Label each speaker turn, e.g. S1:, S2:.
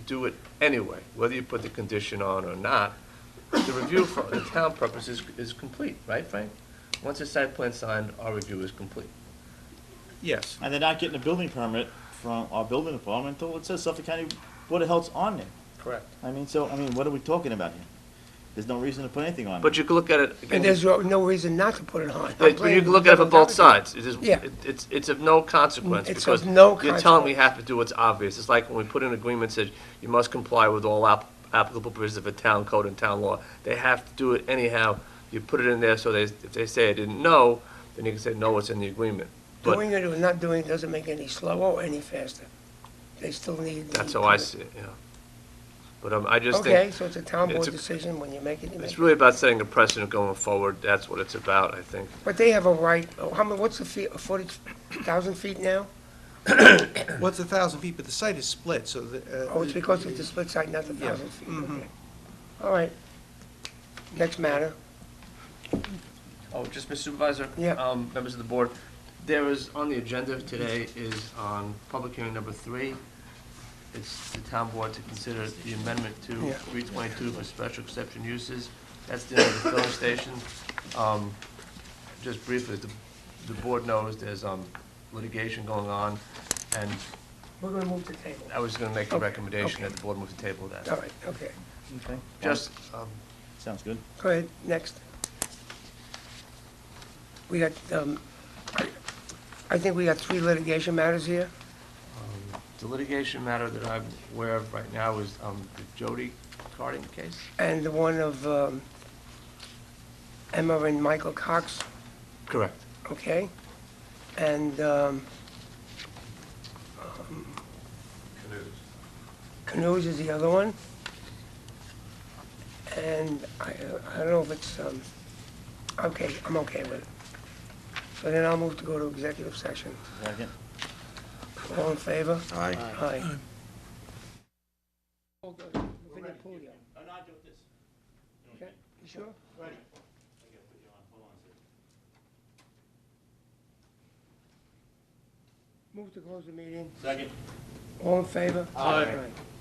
S1: do it anyway, whether you put the condition on or not. The review for the town purpose is, is complete, right, Frank? Once the site plan's signed, our review is complete.
S2: Yes.
S3: And they're not getting a building permit from our building department until it says Suffolk County Board of Health's on there.
S1: Correct.
S3: I mean, so, I mean, what are we talking about here? There's no reason to put anything on
S1: But
S3: it.
S1: you can look at it.
S4: And there's no reason not to put it on.
S1: But you can look at it from both sides. It is,
S4: Yeah.
S1: it- it's, it's of no consequence,
S4: It's
S1: because
S4: of no
S1: you're telling we
S4: consequence.
S1: have to do what's obvious. It's like when we put in agreements that you must comply with all app- applicable provisions of a town code and town law. They have to do it anyhow. You put it in there, so they, if they say I didn't know, then you can say, no, it's in the agreement. But
S4: Doing it or not doing it doesn't make any slower or any faster. They still need. the
S1: that's how I
S4: permit.
S1: see it, yeah. But um, I just
S4: Okay,
S1: think,
S4: so it's a town
S1: it's
S4: board
S1: a-
S4: decision, when you make it, you make
S1: it's
S4: it.
S1: really about setting a precedent going forward. That's what it's about, I think.
S4: But they have a right, oh, how many, what's the feet, footage, thousand feet now?
S2: What's a thousand feet, but the site is split, so the. uh,
S4: Oh, it's because of the split site, not the
S2: Yeah. Mm-hmm.
S4: thousand feet, okay. All right. Next matter.
S1: Oh, just Mr. Supervisor?
S4: Yeah.
S1: Um, members of the board, there is, on the agenda today is on public hearing number three. It's the town board to consider the amendment to
S4: Yeah.
S1: three twenty-two for special exception uses. That's the end of the filling station. Um, just briefly, the, the board knows there's, um, litigation going on, and
S4: We're gonna move to table.
S1: I was gonna make a
S4: Okay,
S1: recommendation
S4: okay.
S1: that the board move to table
S4: All
S1: that.
S4: right, okay.
S3: Okay.
S1: Just, um,
S3: Sounds good.
S4: Go ahead, next. We got, um, I- I think we got three litigation matters here.
S1: um, the litigation matter that I'm aware of right now is, um, the Jody Carding case.
S4: And the one of um, Emma and Michael Cox,
S1: Correct.
S4: okay? And um, Canoes is the other one. And I, I don't know if it's, um, okay, I'm okay with it. So then I'll move to go to executive session.
S3: Second.
S4: All in favor?
S2: Aye.
S4: Aye. eh, Okay, you sure? Move to close the meeting. Second. All in favor? Aye.